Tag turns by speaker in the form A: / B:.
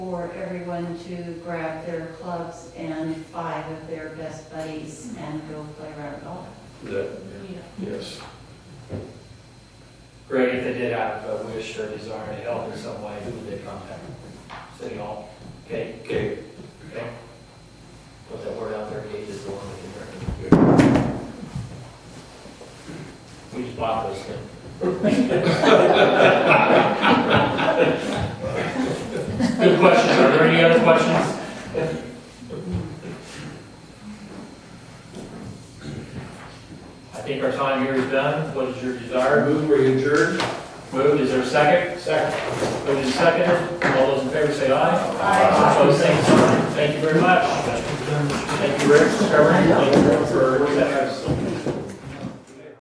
A: for everyone to grab their clubs and five of their best buddies and go play round golf.
B: That, yes.
C: Greg, if they did have a wish or desire to help in some way, who would they contact? City Hall? Okay,
B: Okay.
C: okay. Put that word out there, Gage is the one that can hear. We just bought those things. Good question. Are there any other questions? I think our time here is done. What is your desire?
B: Move where you adjourn.
C: Moved, is there a second? Second. Moved and seconded, all those in favor say aye. Aye. Opposed, same sign. Thank you very much. Thank you, Rick, Trevor, thank you for that.